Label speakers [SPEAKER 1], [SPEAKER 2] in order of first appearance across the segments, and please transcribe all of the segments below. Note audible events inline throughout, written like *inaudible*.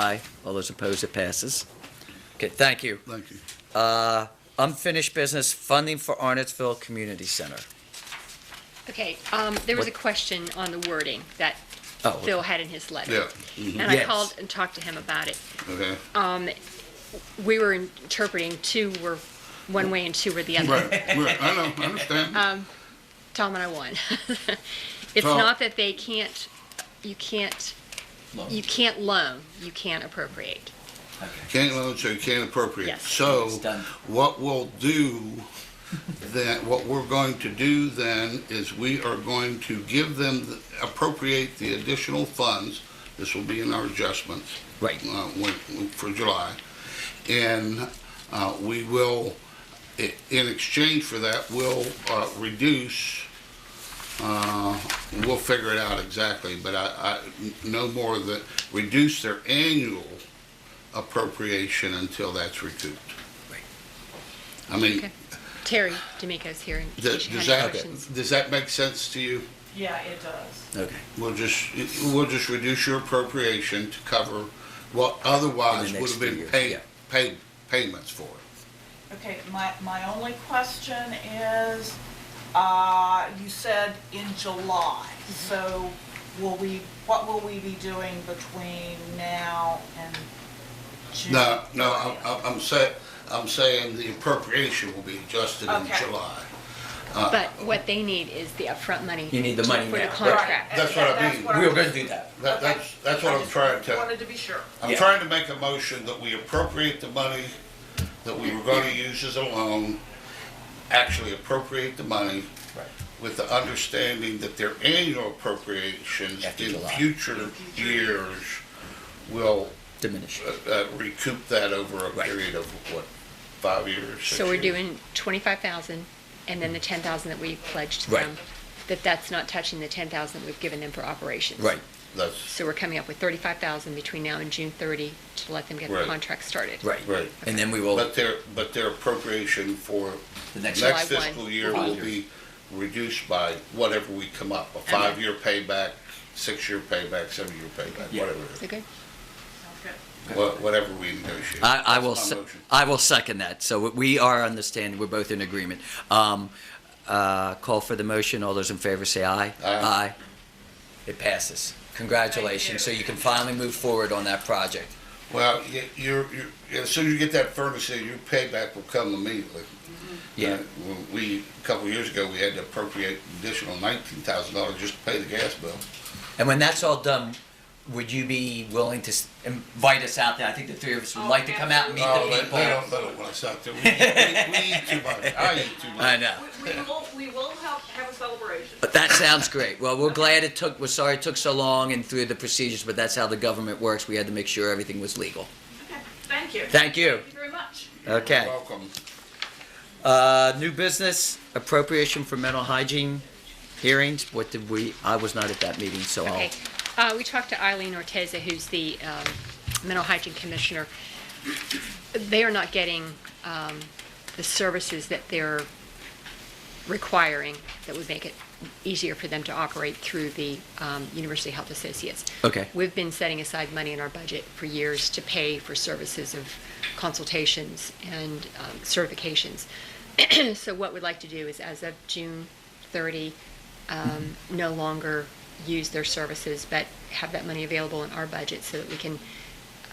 [SPEAKER 1] Aye. All those opposed, it passes. Okay, thank you.
[SPEAKER 2] Thank you.
[SPEAKER 1] Uh, Unfinished business, funding for Arnettsville Community Center.
[SPEAKER 3] Okay, um, there was a
[SPEAKER 1] What-
[SPEAKER 3] question on the wording that
[SPEAKER 1] Oh, okay.
[SPEAKER 3] Phil had in his letter.
[SPEAKER 2] Yeah,
[SPEAKER 3] And I
[SPEAKER 1] Yes.
[SPEAKER 3] called and talked to him about it.
[SPEAKER 2] okay.
[SPEAKER 3] Um, we were interpreting two were one way and two were the other.
[SPEAKER 2] Right, right, I know, I understand.
[SPEAKER 3] Tom and I won. *laughs* It's
[SPEAKER 2] Tom.
[SPEAKER 3] not that they can't, you can't, you can't loan, you can't appropriate.
[SPEAKER 2] Can't loan, so you can't appropriate.
[SPEAKER 3] Yes.
[SPEAKER 2] So
[SPEAKER 1] It's done.
[SPEAKER 2] what we'll do then, what we're going to do then is we are going to give them, the- appropriate the additional funds. This will be in our adjustments.
[SPEAKER 1] Right.
[SPEAKER 2] uh, when- when- for July. And uh, we will, i- in exchange for that, we'll uh, reduce, uh, we'll figure it out exactly, but I, I- no more than, reduce their annual appropriation until that's recouped.
[SPEAKER 1] Right.
[SPEAKER 2] I mean,
[SPEAKER 3] Okay. Terry D'Amico's here and he
[SPEAKER 2] does
[SPEAKER 3] should
[SPEAKER 2] does
[SPEAKER 3] have any
[SPEAKER 2] that,
[SPEAKER 3] questions.
[SPEAKER 2] does that make sense to you?
[SPEAKER 4] Yeah, it does.
[SPEAKER 1] Okay.
[SPEAKER 2] We'll just, we'll just reduce your appropriation to cover what otherwise
[SPEAKER 1] In the
[SPEAKER 2] would
[SPEAKER 1] next
[SPEAKER 2] have
[SPEAKER 1] few
[SPEAKER 2] been
[SPEAKER 1] years, yeah.
[SPEAKER 2] paid, paid, payments for. it.
[SPEAKER 4] Okay, my, my only question is, uh, you said in July, so will we, what will we be doing between now and June?
[SPEAKER 2] No, no, I'm,
[SPEAKER 4] 30th?
[SPEAKER 2] I'm- I'm saying, I'm saying the appropriation will be adjusted in
[SPEAKER 4] Okay.
[SPEAKER 2] July.
[SPEAKER 3] But what they need is the upfront money.
[SPEAKER 1] You need the
[SPEAKER 3] to-
[SPEAKER 1] money
[SPEAKER 3] For the
[SPEAKER 1] now.
[SPEAKER 3] contract.
[SPEAKER 2] That's what I
[SPEAKER 4] That's
[SPEAKER 2] mean.
[SPEAKER 4] what
[SPEAKER 1] We were going to do that.
[SPEAKER 2] That, that's, that's what I'm trying
[SPEAKER 4] I just
[SPEAKER 2] to,
[SPEAKER 4] Wanted to be sure.
[SPEAKER 2] I'm
[SPEAKER 1] Yeah.
[SPEAKER 2] trying to make a motion that we appropriate the money that we were gonna use as a loan, actually appropriate the money
[SPEAKER 1] Right.
[SPEAKER 2] with the understanding that their annual appropriations
[SPEAKER 1] After
[SPEAKER 2] in
[SPEAKER 1] July.
[SPEAKER 2] future years will
[SPEAKER 1] Diminish.
[SPEAKER 2] uh, uh, recoup that over a
[SPEAKER 1] Right.
[SPEAKER 2] period of, what, five years? six
[SPEAKER 3] So we're
[SPEAKER 2] years?
[SPEAKER 3] doing twenty-five thousand, and then the ten thousand that we pledged to
[SPEAKER 1] Mm. Right.
[SPEAKER 3] them, that that's not touching the ten thousand that we've given them for operations.
[SPEAKER 1] Right,
[SPEAKER 2] That's,
[SPEAKER 3] So we're coming up with thirty-five thousand between now and June thirty to let them get the
[SPEAKER 2] Right.
[SPEAKER 3] contract started.
[SPEAKER 1] right.
[SPEAKER 2] Right.
[SPEAKER 1] And then we will,
[SPEAKER 2] but
[SPEAKER 1] the
[SPEAKER 2] their, but their appropriation for
[SPEAKER 1] next,
[SPEAKER 3] July
[SPEAKER 2] next
[SPEAKER 3] one.
[SPEAKER 2] fiscal year will be reduced by whatever we come up, a five-year payback, six-year payback, seven-year payback,
[SPEAKER 1] Yeah.
[SPEAKER 2] whatever,
[SPEAKER 3] So good.
[SPEAKER 4] Okay.
[SPEAKER 2] wha- whatever we negotiate.
[SPEAKER 1] I, I
[SPEAKER 2] That's
[SPEAKER 1] will,
[SPEAKER 2] my
[SPEAKER 1] se-
[SPEAKER 2] motion.
[SPEAKER 1] I will second that. So we- we are understanding, we're both in agreement. Um, uh, Call for the motion. All those in favor say aye.
[SPEAKER 2] Aye.
[SPEAKER 1] It passes. Congratulations. So you can finally move forward on that project.
[SPEAKER 2] Well, y- you're, you're, as soon as you get that furnace in, your payback will come immediately.
[SPEAKER 1] Yeah.
[SPEAKER 2] Uh, when We, a couple of years ago, we had to appropriate additional nineteen thousand dollars just to pay the gas bill.
[SPEAKER 1] And when that's all done, would you be willing to s- invite us out there? I think the three of us would like to come out and meet
[SPEAKER 2] Oh,
[SPEAKER 1] the
[SPEAKER 2] they,
[SPEAKER 1] people.
[SPEAKER 2] they don't, they don't want us out there. We, we, we eat too much. I eat too much.
[SPEAKER 1] I know.
[SPEAKER 4] We, we will, we will have, have a celebration.
[SPEAKER 1] But that sounds great. Well, we're glad it took, we're sorry it took so long and through the procedures, but that's how the government works. We had to make sure everything was legal.
[SPEAKER 4] Okay, Thank you.
[SPEAKER 1] Thank you.
[SPEAKER 4] Thank you very much.
[SPEAKER 1] Okay.
[SPEAKER 2] Welcome.
[SPEAKER 1] Uh, new business appropriation for mental hygiene hearings. What did we, I was not at that meeting, so I'll.
[SPEAKER 3] Okay. Uh, we talked to Eileen Orteza, who's the, um, mental hygiene commissioner. They are not getting, um, the services that they're requiring that would make it easier for them to operate through the, um, University Health Associates.
[SPEAKER 1] Okay.
[SPEAKER 3] We've been setting aside money in our budget for years to pay for services of consultations and um, certifications. *clears throat* So what we'd like to do is, as of June 30, um, no longer use their services, but have that money available in our budget so that we can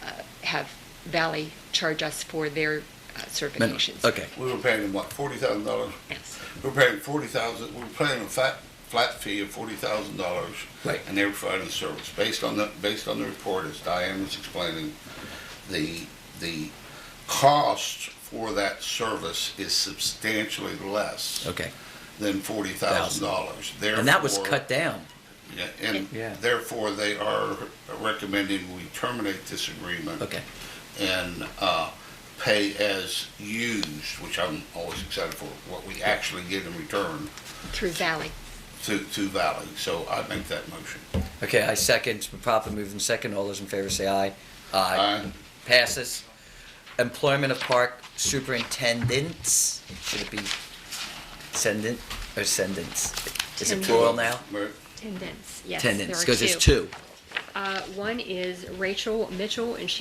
[SPEAKER 3] uh, have Valley charge us for their uh,
[SPEAKER 1] Mental-
[SPEAKER 3] certifications.
[SPEAKER 1] Okay.
[SPEAKER 2] We were paying them what, forty thousand dollars?
[SPEAKER 3] Yes.
[SPEAKER 2] We were paying forty thousand, we were paying a flat, flat fee of forty thousand dollars.
[SPEAKER 1] Right.
[SPEAKER 2] And they were providing service. Based on the, based on the report, as Diane was explaining, the, the cost for that service is substantially less
[SPEAKER 1] Okay.
[SPEAKER 2] than forty thousand dollars.
[SPEAKER 1] And that was cut down.
[SPEAKER 2] Yeah, And
[SPEAKER 1] Yeah.
[SPEAKER 2] therefore, they are recommending we terminate this agreement.
[SPEAKER 1] Okay.
[SPEAKER 2] and uh, pay as used, which I'm always excited for, what we actually get in return
[SPEAKER 3] Through Valley.
[SPEAKER 2] to, to Valley. So I make that motion.
[SPEAKER 1] Okay, I second, it's been properly moved and second, all those in favor say aye. Aye.
[SPEAKER 2] Aye.
[SPEAKER 1] Passes. Employment of park superintendents, should it be sendent or sendants? Is it
[SPEAKER 3] Tendents.
[SPEAKER 1] plural now?
[SPEAKER 2] Right.
[SPEAKER 3] Attendance, yes. there
[SPEAKER 1] Tendents,
[SPEAKER 3] are
[SPEAKER 1] because it's two.
[SPEAKER 3] Uh, One is Rachel Mitchell, and she